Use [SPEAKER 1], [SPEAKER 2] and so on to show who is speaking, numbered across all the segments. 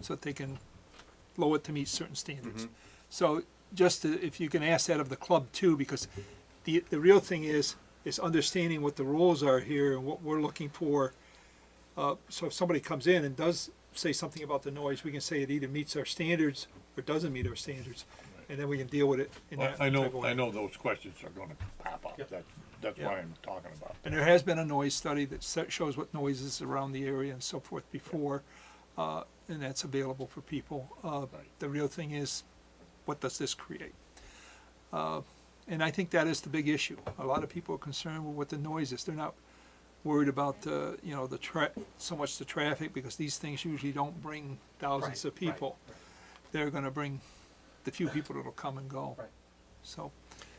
[SPEAKER 1] so that they can lower it to meet certain standards. So just to- if you can ask that of the club too, because the, the real thing is, is understanding what the rules are here and what we're looking for. Uh, so if somebody comes in and does say something about the noise, we can say it either meets our standards or doesn't meet our standards. And then we can deal with it in
[SPEAKER 2] Well,
[SPEAKER 1] that
[SPEAKER 2] I
[SPEAKER 1] type of
[SPEAKER 2] know,
[SPEAKER 1] way.
[SPEAKER 2] I know those questions are gonna pop
[SPEAKER 1] Yep.
[SPEAKER 2] up, that, that's
[SPEAKER 1] Yeah.
[SPEAKER 2] why I'm talking about.
[SPEAKER 1] And there has been a noise study that se- shows what noises around the area and so forth before, uh, and that's available for people. Uh,
[SPEAKER 2] Right.
[SPEAKER 1] The real thing is, what does this create? Uh, And I think that is the big issue. A lot of people are concerned with what the noise is. They're not worried about the, you know, the tra- so much the traffic, because these things usually don't bring thousands of
[SPEAKER 3] Right, right,
[SPEAKER 1] people. They're gonna bring the few people that'll come and go.
[SPEAKER 3] Right.
[SPEAKER 1] So,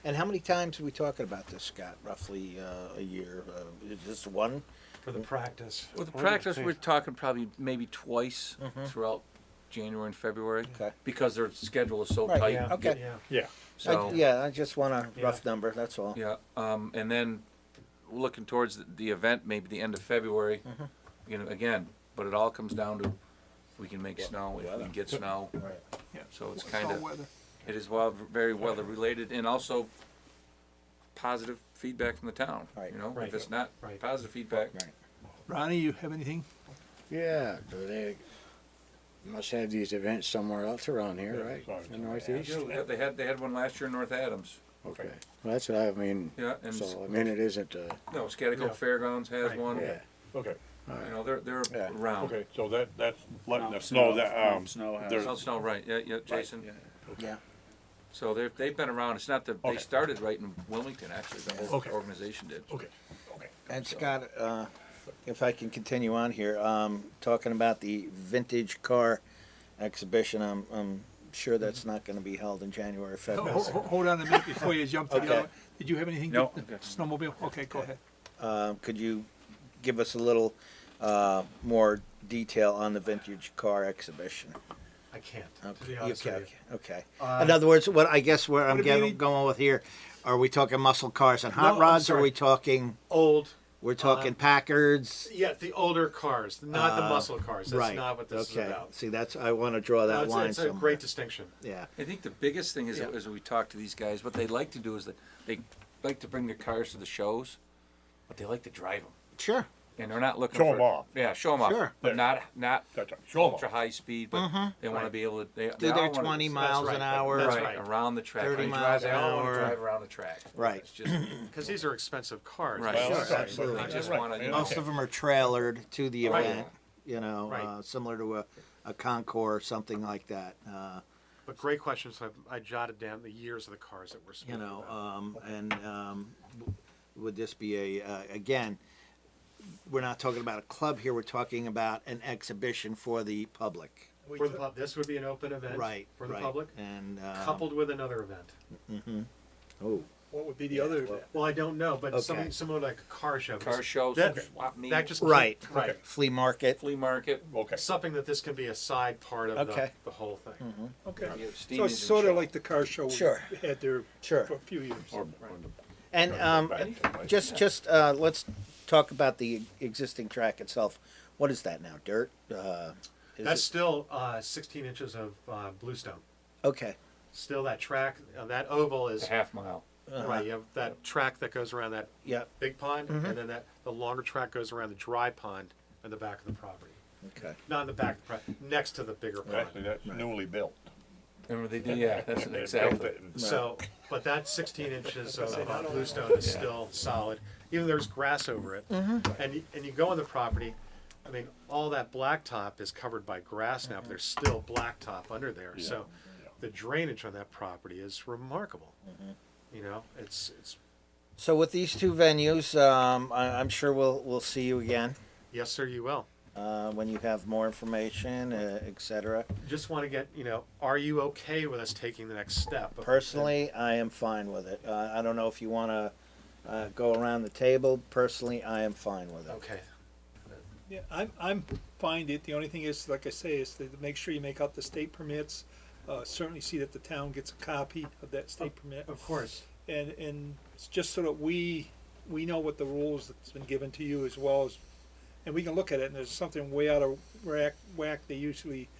[SPEAKER 4] And how many times are we talking about this, Scott? Roughly uh, a year? Uh, is this one?
[SPEAKER 3] for the practice.
[SPEAKER 5] Well, the practice, we're talking probably maybe twice
[SPEAKER 3] Mm-hmm.
[SPEAKER 5] throughout January and February.
[SPEAKER 4] Okay.
[SPEAKER 5] Because their schedule is so
[SPEAKER 4] Right,
[SPEAKER 5] tight.
[SPEAKER 3] Yeah,
[SPEAKER 4] Okay.
[SPEAKER 3] yeah.
[SPEAKER 2] Yeah.
[SPEAKER 5] So,
[SPEAKER 4] I, yeah, I just want a
[SPEAKER 3] Yeah.
[SPEAKER 4] rough number. That's all.
[SPEAKER 5] yeah, um, and then looking towards the, the event, maybe the end of February,
[SPEAKER 3] Mm-hmm.
[SPEAKER 5] you know, again, but it all comes down to, we can make snow, if we
[SPEAKER 4] weather.
[SPEAKER 5] can get snow,
[SPEAKER 4] Right.
[SPEAKER 1] yeah.
[SPEAKER 5] so it's
[SPEAKER 1] all
[SPEAKER 5] kind of,
[SPEAKER 1] weather.
[SPEAKER 5] it is well, very weather related, and also positive feedback from the town,
[SPEAKER 4] Right.
[SPEAKER 5] you know?
[SPEAKER 3] Right.
[SPEAKER 5] If it's not
[SPEAKER 3] Right.
[SPEAKER 5] positive feedback,
[SPEAKER 4] Right.
[SPEAKER 1] Ronnie, you have anything?
[SPEAKER 6] Yeah, but they must have these events somewhere else around here,
[SPEAKER 2] Yeah,
[SPEAKER 6] right?
[SPEAKER 2] sorry.
[SPEAKER 6] In the Northeast?
[SPEAKER 5] Yeah, they had, they had one last year in North Adams,
[SPEAKER 6] Okay. Well, that's what I mean.
[SPEAKER 5] yeah, and
[SPEAKER 6] So, I mean, it isn't, uh,
[SPEAKER 5] No, Scottico
[SPEAKER 3] Yeah.
[SPEAKER 5] Fairgrounds has
[SPEAKER 3] Right.
[SPEAKER 5] one.
[SPEAKER 6] yeah.
[SPEAKER 2] Okay,
[SPEAKER 5] You know, they're they're
[SPEAKER 6] Yeah.
[SPEAKER 5] around.
[SPEAKER 2] okay, so that, that's letting us
[SPEAKER 6] Snow,
[SPEAKER 2] know that, um,
[SPEAKER 6] snow house.
[SPEAKER 2] there's,
[SPEAKER 5] South Snow, right? Yeah, yeah, Jason.
[SPEAKER 4] Yeah.
[SPEAKER 5] So they've they've been around. It's not that
[SPEAKER 2] Okay.
[SPEAKER 5] they started right in Wilmington. Actually, the whole
[SPEAKER 2] Okay.
[SPEAKER 5] organization did.
[SPEAKER 2] okay, okay.
[SPEAKER 4] And Scott, uh, if I can continue on here, um, talking about the vintage car exhibition, I'm, I'm sure that's not going to be held in January, or
[SPEAKER 1] Oh, Ho-
[SPEAKER 4] February.
[SPEAKER 1] ho- ho- Hold on a minute before you jump to the other.
[SPEAKER 4] Okay.
[SPEAKER 1] one. Did you have anything?
[SPEAKER 6] No.
[SPEAKER 1] to- Snowmobile? Okay, go ahead.
[SPEAKER 4] Uh, could you give us a little uh, more detail on the vintage car exhibition?
[SPEAKER 3] I can't, to
[SPEAKER 4] Okay.
[SPEAKER 3] be honest
[SPEAKER 4] okay.
[SPEAKER 3] with you.
[SPEAKER 4] okay.
[SPEAKER 3] Uh,
[SPEAKER 4] In other words, what I guess where I'm
[SPEAKER 1] Would it be any-
[SPEAKER 4] getting, going with here, are we talking muscle cars and
[SPEAKER 3] No,
[SPEAKER 4] hot
[SPEAKER 3] I'm
[SPEAKER 4] rods? Or are
[SPEAKER 3] sorry. Uh,
[SPEAKER 4] we talking?
[SPEAKER 3] Old,
[SPEAKER 4] We're talking Packards.
[SPEAKER 3] yeah, the older cars, not the
[SPEAKER 4] Uh,
[SPEAKER 3] muscle cars. That's
[SPEAKER 4] right.
[SPEAKER 3] not what this
[SPEAKER 4] okay.
[SPEAKER 3] is about.
[SPEAKER 4] See, that's I want to draw
[SPEAKER 3] No,
[SPEAKER 4] that
[SPEAKER 3] it's,
[SPEAKER 4] line
[SPEAKER 3] it's a
[SPEAKER 4] somewhere.
[SPEAKER 3] great distinction.
[SPEAKER 4] yeah.
[SPEAKER 5] I think the biggest thing is
[SPEAKER 3] Yeah.
[SPEAKER 5] as we talk to these guys, what they like to do is that they like to bring their cars to the shows, but they like to drive them,
[SPEAKER 4] Sure.
[SPEAKER 5] and they're not looking
[SPEAKER 2] Show
[SPEAKER 5] for
[SPEAKER 2] 'em off.
[SPEAKER 5] Yeah, show them off.
[SPEAKER 4] Sure. Mm-hmm.
[SPEAKER 5] But not not
[SPEAKER 2] That's right. Show 'em
[SPEAKER 5] ultra
[SPEAKER 2] off.
[SPEAKER 5] high speed, but they want to be able to. They, they
[SPEAKER 4] Do
[SPEAKER 5] all
[SPEAKER 4] their
[SPEAKER 5] wanna-
[SPEAKER 4] 20 miles
[SPEAKER 3] right,
[SPEAKER 4] an
[SPEAKER 3] that-
[SPEAKER 4] hour.
[SPEAKER 3] that's
[SPEAKER 5] right,
[SPEAKER 3] right.
[SPEAKER 5] around the track.
[SPEAKER 4] 30
[SPEAKER 5] They drive-
[SPEAKER 4] miles
[SPEAKER 5] they
[SPEAKER 4] an
[SPEAKER 5] all wanna
[SPEAKER 4] hour.
[SPEAKER 5] drive around the track.
[SPEAKER 4] Right.
[SPEAKER 5] It's just
[SPEAKER 3] Because these are expensive cars.
[SPEAKER 5] Right.
[SPEAKER 2] Well,
[SPEAKER 4] Hmm. Sure,
[SPEAKER 2] that's right,
[SPEAKER 4] absolutely.
[SPEAKER 2] that's
[SPEAKER 4] They
[SPEAKER 5] just
[SPEAKER 2] right,
[SPEAKER 5] wanna, you
[SPEAKER 2] yeah.
[SPEAKER 5] know,
[SPEAKER 4] Most of them are trailered to the
[SPEAKER 3] Right.
[SPEAKER 4] event, you know,
[SPEAKER 3] Right.
[SPEAKER 4] uh, similar to a, a Concours or something like that. Uh,
[SPEAKER 3] But great question. So I, I jotted down the years of the cars that were.
[SPEAKER 4] you
[SPEAKER 3] speaking
[SPEAKER 4] know,
[SPEAKER 3] about.
[SPEAKER 4] um, and um, w- would this be a, uh, again, we're not talking about a club here, we're talking about an exhibition for the public.
[SPEAKER 3] for the pub, this would be an open event.
[SPEAKER 4] uh, Right.
[SPEAKER 3] For the
[SPEAKER 4] right.
[SPEAKER 3] public,
[SPEAKER 4] And. um,
[SPEAKER 3] coupled with another event.
[SPEAKER 4] Oh,
[SPEAKER 1] What would be the other?
[SPEAKER 3] Well, I don't know, but
[SPEAKER 4] Okay.
[SPEAKER 3] something similar like a car show.
[SPEAKER 5] car shows,
[SPEAKER 3] That-
[SPEAKER 5] swap meet,
[SPEAKER 3] That just
[SPEAKER 4] Right.
[SPEAKER 3] Right.
[SPEAKER 4] flea market.
[SPEAKER 5] flea market,
[SPEAKER 2] Okay,
[SPEAKER 3] Something that this can be a side part of the,
[SPEAKER 4] Okay. Mm-hmm.
[SPEAKER 3] the whole thing.
[SPEAKER 1] Okay.
[SPEAKER 5] you have steam
[SPEAKER 1] So it's
[SPEAKER 5] engine
[SPEAKER 1] sort
[SPEAKER 5] show.
[SPEAKER 1] of like the car show we
[SPEAKER 4] Sure.
[SPEAKER 1] had there
[SPEAKER 4] Sure.
[SPEAKER 1] for a few years.
[SPEAKER 2] or, or
[SPEAKER 4] And um,
[SPEAKER 2] the.
[SPEAKER 4] just, just, uh, let's talk about the existing track itself. What is that now? Dirt? Uh, is
[SPEAKER 3] That's
[SPEAKER 4] it-
[SPEAKER 3] still uh, 16 inches of uh, bluestone.
[SPEAKER 4] Okay.
[SPEAKER 3] Still that track, uh, that oval is
[SPEAKER 5] a half mile.
[SPEAKER 3] right. You have that track that goes around that
[SPEAKER 4] Uh-huh. Yep. Mm-hmm.
[SPEAKER 3] big pond, and then that the longer track goes around the dry pond in the back of the property.
[SPEAKER 4] Okay.
[SPEAKER 3] Not in the back of the property, next to the bigger pond.
[SPEAKER 2] Actually, that's newly built.
[SPEAKER 5] Remember they did, yeah, that's
[SPEAKER 2] They
[SPEAKER 5] exactly.
[SPEAKER 2] built it and-
[SPEAKER 3] So, but that 16 inches of uh, bluestone is still solid, even there's grass over it. And, you- and you go on the property, I mean, all that blacktop is covered by grass now, but there's still blacktop under there. So the drainage on that property is remarkable. You know, it's, it's,
[SPEAKER 4] So with these two venues, um, I, I'm sure we'll we'll see you again
[SPEAKER 3] yes, sir, you will.
[SPEAKER 4] uh, when you have more information, uh, etc.
[SPEAKER 3] Just want to get, you know, are you okay with us taking the next step?
[SPEAKER 4] Personally, I am fine with it. Uh, I don't know if you want to uh, go around the table. Personally, I am fine with it.
[SPEAKER 3] Okay,
[SPEAKER 1] Yeah, I'm, I'm fine. The- The only thing is, like I say, is to make sure you make out the state permits. Uh, certainly see that the town gets a copy of that state permit.
[SPEAKER 3] of course.
[SPEAKER 1] And, and it's just so that we, we know what the rules that's been given to you as well as, and we can look at it and there's something way out of rack, whack, they usually